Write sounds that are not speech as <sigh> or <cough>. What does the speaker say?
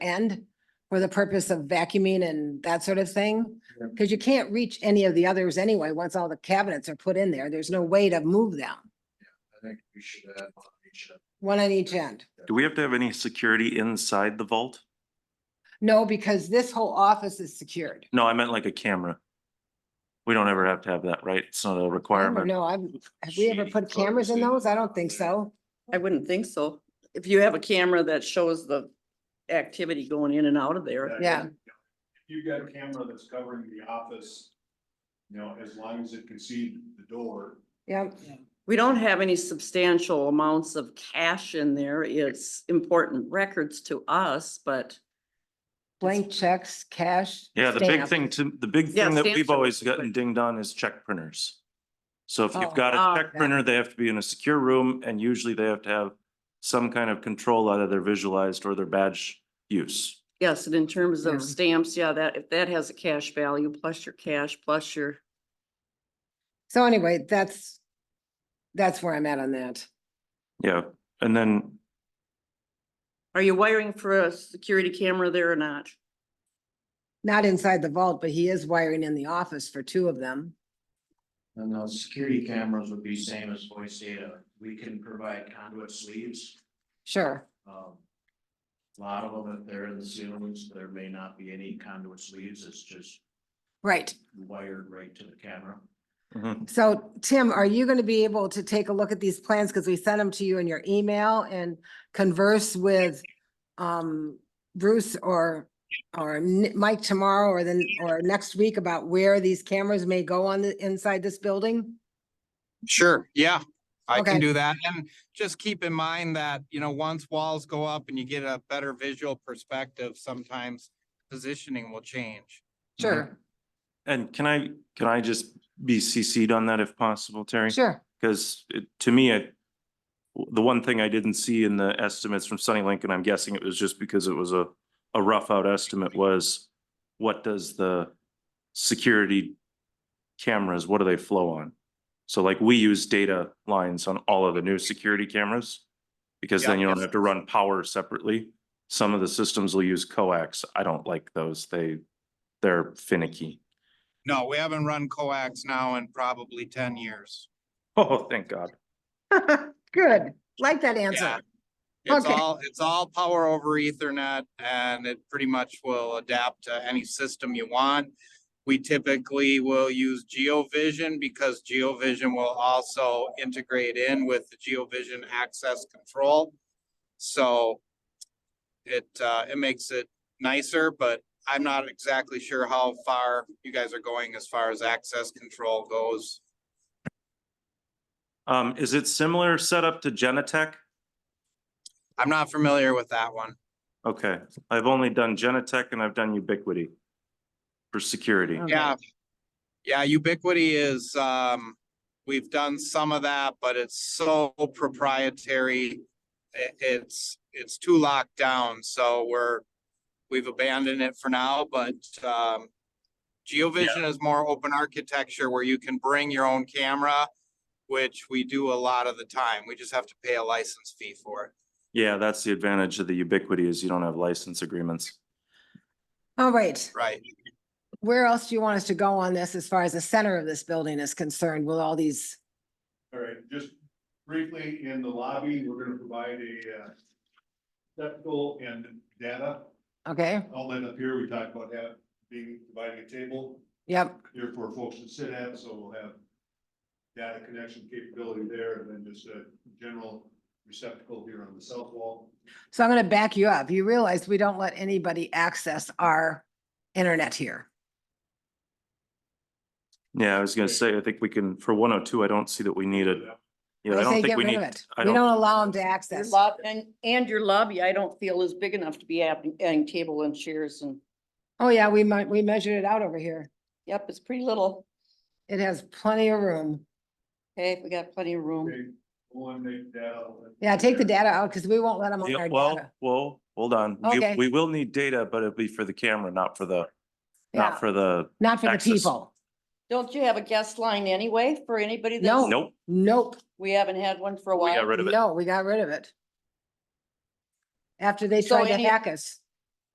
end for the purpose of vacuuming and that sort of thing. Yep. Because you can't reach any of the others anyway, once all the cabinets are put in there, there's no way to move them, I think we should add on each of one on each end. Do we have to have any security inside the vault? No, because this whole office is secured. No, I meant like a camera. We don't ever have to have that, right? It's not a I don't requirement. know, I've, have we ever Shady put cameras in photos those? I in don't think there. so. I wouldn't think so. If you have a camera that shows the activity going in and out of there. that. Yeah. If you've got a camera that's covering the office, you know, as long as it can see the door. Yep, We don't have any substantial amounts of cash in there. It's important records to us, but blank checks, cash. Yeah, the big stamp. thing to, the big Yeah, thing that stamps we've are always really gotten quick. dinged on is check printers. So if Oh, you've got ah, a check yeah. printer, they have to be in a secure room and usually they have to have some kind of control out of their visualized or their badge use. yes, and in terms Yeah. of stamps, yeah, that, if that has a cash value, plus your cash, plus your, So anyway, that's, that's where I'm at on that. Yeah, and then are you wiring for a security camera there or not? Not inside the vault, but he is wiring in the office for two of them. And those security cameras would be same as voice data. We can provide conduit sleeves. Sure, Um, A lot of them, if they're in the ceilings, there may not be any conduit sleeves. It's just right. wired right to the camera. Mm-hmm. mhm, So Tim, are you going to be able to take a look at these plans? Because we sent them to you in your email and converse with um, Bruce or, or Ni- Mike tomorrow or then, or next week about where these cameras may go on the, inside this building? Sure, yeah, I Okay. can do that. And just keep in mind that, you know, once walls go up and you get a better visual perspective, sometimes positioning will change. Sure, and can I, can I just be CC'd on that if possible, Terry? sure. <laughs> Because it, to me, it, w- the one thing I didn't see in the estimates from Sunny Link, and I'm guessing it was just because it was a, a rough out estimate was what does the security cameras, what do they flow on? So like we use data lines on all of the new security cameras because then Yeah. you don't have to run power separately. Some of the systems will use coax. I don't like those. They, they're finicky. <laughs> No, we haven't run coax now in probably ten years. Oh, thank God. Good, like that answer. Yeah. It's Okay. all, it's all power over ethernet and it pretty much will adapt to any system you want. We typically will use GeoVision because GeoVision will also integrate in with the GeoVision access control. So it, uh, it makes it nicer, but I'm not exactly sure how far you guys are going as far as access control goes. Um, is it similar setup to Genetech? I'm not familiar with that one. Okay, I've only done Genetech and I've done Ubiquity for security. Okay. Yeah. Yeah, Ubiquity is, um, we've done some of that, but it's so proprietary. I- it's, it's too locked down, so we're, we've abandoned it for now, but, um, GeoVision is more open architecture where you can bring your own camera, which we do a lot of the time. We just have to pay a license fee for it. Yeah, that's the advantage of the Ubiquity is you don't have license agreements. All right, Right. where else do you want us to go on this as far as the center of this building is concerned with all these? All right, just briefly, in the lobby, we're gonna provide a uh, receptacle and data Okay, outlet up here. We talked about that being, providing a table yep, here for folks to sit at, so we'll have data connection capability there, and then just a general receptacle here on the south wall. so I'm gonna back you up. You realize we don't let anybody access our internet here. Yeah, I was gonna say, I think we can, for one oh two, I don't see that we need it. Yeah, I I say don't think get we rid of need, it. I We don't, don't allow them to Your access. lob, and, and your lobby, I don't feel is big enough to be adding, adding table and chairs and, Oh, yeah, we might, we measured it out over here. yep, it's pretty little. It has plenty of room. Hey, we got plenty of room. Okay, eliminate data outlet. Yeah, take the data out because we won't let them on Yeah, our well, data. well, hold on. We- Okay. We will need data, but it'll be for the camera, not for the, Yeah, not for the, not for the access. people. Don't you have a guest line anyway for anybody? that's- No. nope, Nope, We haven't had one for a we got while. rid of it. no, we got rid of it. After they So tried to any- hack us.